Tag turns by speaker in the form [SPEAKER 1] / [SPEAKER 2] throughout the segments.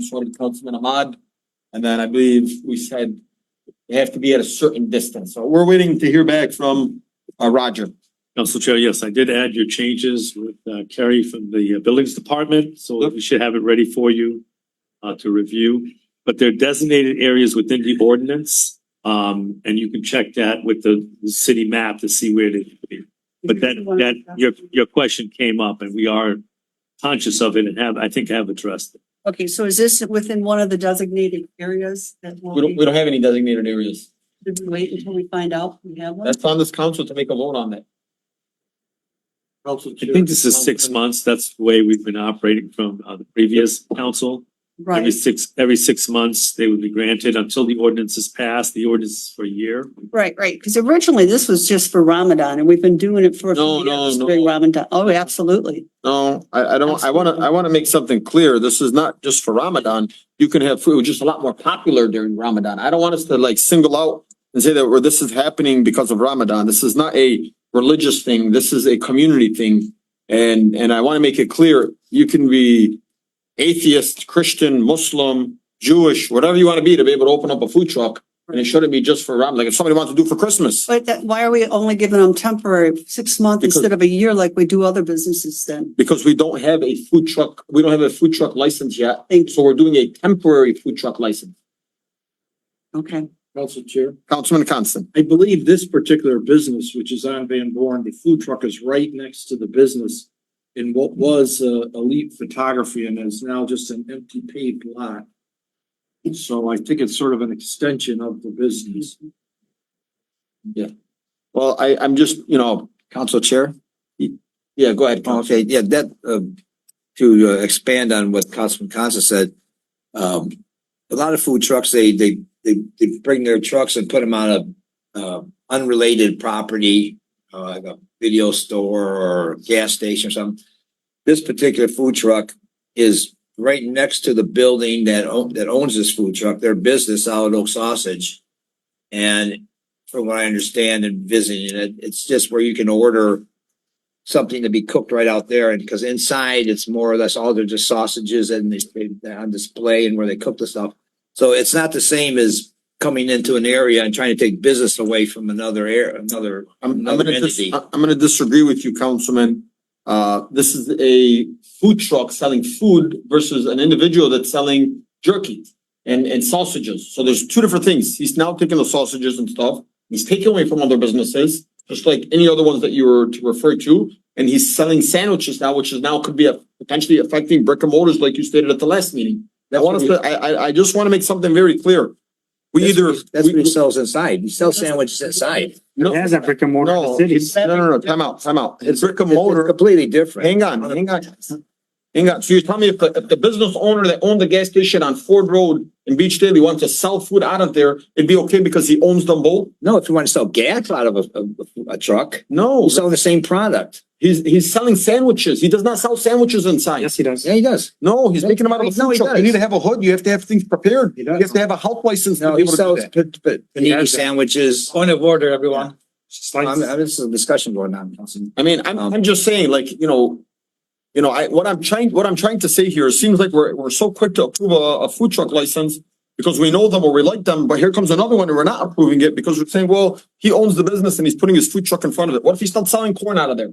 [SPEAKER 1] sort of Councilman Ahmad. And then I believe we said they have to be at a certain distance. So we're waiting to hear back from uh Roger.
[SPEAKER 2] Council Chair, yes, I did add your changes with uh, Kerry from the uh, Buildings Department, so
[SPEAKER 1] Yep.
[SPEAKER 2] we should have it ready for you uh, to review. But they're designated areas within the ordinance, um, and you can check that with the the city map to see where they could be. But that, that, your, your question came up and we are conscious of it and have, I think have addressed it.
[SPEAKER 3] Okay, so is this within one of the designated areas that
[SPEAKER 1] We
[SPEAKER 3] will
[SPEAKER 1] don't,
[SPEAKER 3] be,
[SPEAKER 1] we don't have any designated areas.
[SPEAKER 3] should we wait until we find out we have one?
[SPEAKER 1] That's on this council to make a vote on that. Council.
[SPEAKER 2] I think this is six months, that's the way we've been operating from uh, the previous council. Every
[SPEAKER 3] Right,
[SPEAKER 2] six, every six months, they would be granted until the ordinance is passed, the ordinance is for a year.
[SPEAKER 3] right, right, because originally this was just for Ramadan and we've been doing it for a
[SPEAKER 1] No,
[SPEAKER 3] few
[SPEAKER 1] no,
[SPEAKER 3] years
[SPEAKER 1] no.
[SPEAKER 3] during Ramadan. Oh, absolutely.
[SPEAKER 1] No, I I don't, I wanna, I wanna make something clear. This is not just for Ramadan. You can have food, just a lot more popular during Ramadan. I don't want us to like single out and say that, well, this is happening because of Ramadan. This is not a religious thing. This is a community thing. And, and I wanna make it clear, you can be atheist, Christian, Muslim, Jewish, whatever you wanna be to be able to open up a food truck. And it shouldn't be just for Ramadan. Like if somebody wants to do it for Christmas,
[SPEAKER 3] But that, why are we only giving them temporary, six months
[SPEAKER 1] Because-
[SPEAKER 3] instead of a year like we do other businesses then?
[SPEAKER 1] because we don't have a food truck, we don't have a food truck license yet.
[SPEAKER 3] Thank you,
[SPEAKER 1] So we're doing a temporary food truck license.
[SPEAKER 3] okay.
[SPEAKER 4] Council Chair,
[SPEAKER 1] Councilman Constant.
[SPEAKER 4] I believe this particular business, which is on Van Born, the food truck is right next to the business in what was uh, Elite Photography and is now just an empty paved lot. So I think it's sort of an extension of the business.
[SPEAKER 1] Well, I, I'm just, you know,
[SPEAKER 5] Council Chair,
[SPEAKER 1] yeah, go ahead. Council.
[SPEAKER 5] okay, yeah, that, uh, to uh, expand on what Councilman Constance said, um, a lot of food trucks, they, they, they, they bring their trucks and put them on a, uh, unrelated property, uh, like a video store or gas station or something. This particular food truck is right next to the building that own, that owns this food truck, their business, Solid Oak Sausage. And from what I understand and visiting it, it's just where you can order something to be cooked right out there. And because inside it's more or less all they're just sausages and they, they're on display and where they cook the stuff. So it's not the same as coming into an area and trying to take business away from another air, another.
[SPEAKER 1] I'm, I'm
[SPEAKER 5] another
[SPEAKER 1] gonna dis-
[SPEAKER 5] entity.
[SPEAKER 1] I- I'm gonna disagree with you, Councilman. Uh, this is a food truck selling food versus an individual that's selling jerky and, and sausages. So there's two different things. He's now taking the sausages and stuff. He's taking away from other businesses, just like any other ones that you were to refer to. And he's selling sandwiches now, which is now could be a- potentially affecting brick and mortars like you stated at the last meeting. I want us to, I, I, I just want to make something very clear. We
[SPEAKER 5] That's
[SPEAKER 1] either.
[SPEAKER 5] what he- That's what
[SPEAKER 1] we-
[SPEAKER 5] he sells inside. He sells sandwiches inside.
[SPEAKER 1] No,
[SPEAKER 6] It has a brick and mortar in
[SPEAKER 1] no,
[SPEAKER 6] the city.
[SPEAKER 1] it's- no, no, no, time out, time out. It's brick and
[SPEAKER 5] It's- it's
[SPEAKER 1] mortar.
[SPEAKER 5] Completely different.
[SPEAKER 1] Hang on, hang on. Hang on. So you're telling me if the, if the business owner that owned the gas station on Ford Road in Beach Daily wants to sell food out of there, it'd be okay because he owns them both?
[SPEAKER 5] No, if you want to sell gas out of a, a, a truck,
[SPEAKER 1] No,
[SPEAKER 5] you sell the same product.
[SPEAKER 1] he's, he's selling sandwiches. He does not sell sandwiches inside.
[SPEAKER 6] Yes, he does.
[SPEAKER 5] Yeah, he does.
[SPEAKER 1] No, he's making them out of a
[SPEAKER 5] No,
[SPEAKER 1] food
[SPEAKER 5] he
[SPEAKER 1] truck. You
[SPEAKER 5] does.
[SPEAKER 1] need to have a hood. You have to have things prepared.
[SPEAKER 4] He
[SPEAKER 1] You
[SPEAKER 4] does.
[SPEAKER 1] have to have a health license to
[SPEAKER 5] No,
[SPEAKER 1] be
[SPEAKER 5] he
[SPEAKER 1] able to do
[SPEAKER 5] sells
[SPEAKER 1] that.
[SPEAKER 5] pa- pa- panini sandwiches.
[SPEAKER 7] Point of order, everyone.
[SPEAKER 5] I'm,
[SPEAKER 6] Slices.
[SPEAKER 5] I'm, this is a discussion going on, Councilman.
[SPEAKER 1] I mean, I'm,
[SPEAKER 5] Um,
[SPEAKER 1] I'm just saying, like, you know, you know, I, what I'm trying, what I'm trying to say here, it seems like we're, we're so quick to approve a, a food truck license because we know them or we like them, but here comes another one and we're not approving it because we're saying, well, he owns the business and he's putting his food truck in front of it. What if he's still selling corn out of there?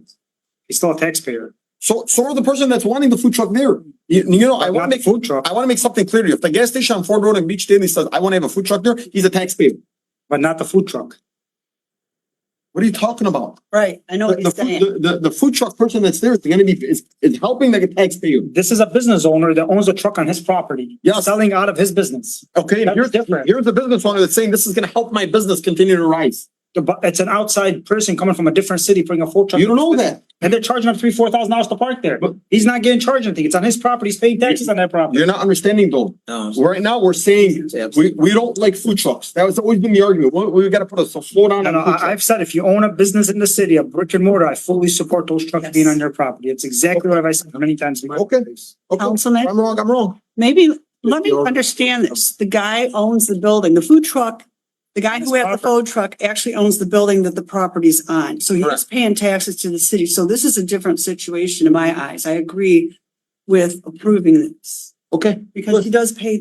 [SPEAKER 6] He's still a taxpayer.
[SPEAKER 1] So, so are the person that's wanting the food truck there. You, you know, I
[SPEAKER 6] Not
[SPEAKER 1] wanna
[SPEAKER 6] the
[SPEAKER 1] make,
[SPEAKER 6] Food truck,
[SPEAKER 1] I wanna make something clear to you. If the gas station on Ford Road and Beach Daily says, I wanna have a food truck there, he's a taxpayer.
[SPEAKER 6] but not the food truck.
[SPEAKER 1] What are you talking about?
[SPEAKER 3] Right, I know
[SPEAKER 1] The,
[SPEAKER 3] what you're
[SPEAKER 1] the,
[SPEAKER 3] saying.
[SPEAKER 1] food- the, the- the food truck person that's there is gonna be, is, is helping the taxpayer.
[SPEAKER 6] This is a business owner that owns a truck on his property.
[SPEAKER 1] Yes.
[SPEAKER 6] Selling out of his business.
[SPEAKER 1] Okay, and
[SPEAKER 6] That's
[SPEAKER 1] here's,
[SPEAKER 6] different.
[SPEAKER 1] here's the business owner that's saying this is gonna help my business continue to rise.
[SPEAKER 6] The bu- It's an outside person coming from a different city, bringing a food truck.
[SPEAKER 1] You don't know that.
[SPEAKER 6] And they're charging him three, four thousand dollars to park there.
[SPEAKER 1] But-
[SPEAKER 6] He's not getting charged anything. It's on his property. He's paying taxes on that property.
[SPEAKER 1] You're not understanding though.
[SPEAKER 5] No, it's-
[SPEAKER 1] Right now, we're saying, we, we don't like food trucks. That was always been the argument. We, we gotta put a slow down
[SPEAKER 6] No,
[SPEAKER 1] on
[SPEAKER 6] no,
[SPEAKER 1] food
[SPEAKER 6] I,
[SPEAKER 1] trucks.
[SPEAKER 6] I've said if you own a business in the city, a brick and mortar, I fully support those trucks being
[SPEAKER 3] Yes.
[SPEAKER 6] on your property. It's exactly what I've said many times. before.
[SPEAKER 1] Okay, okay.
[SPEAKER 3] Councilman?
[SPEAKER 1] I'm wrong, I'm wrong.
[SPEAKER 3] Maybe, let me
[SPEAKER 1] you're-
[SPEAKER 3] understand this. The guy owns the building, the food truck. The guy who
[SPEAKER 6] It's
[SPEAKER 3] has the
[SPEAKER 6] property.
[SPEAKER 3] food truck actually owns the building that the property's on. So he's
[SPEAKER 1] Correct.
[SPEAKER 3] paying taxes to the city. So this is a different situation in my eyes. I agree with approving this.
[SPEAKER 1] Okay.
[SPEAKER 3] because he does pay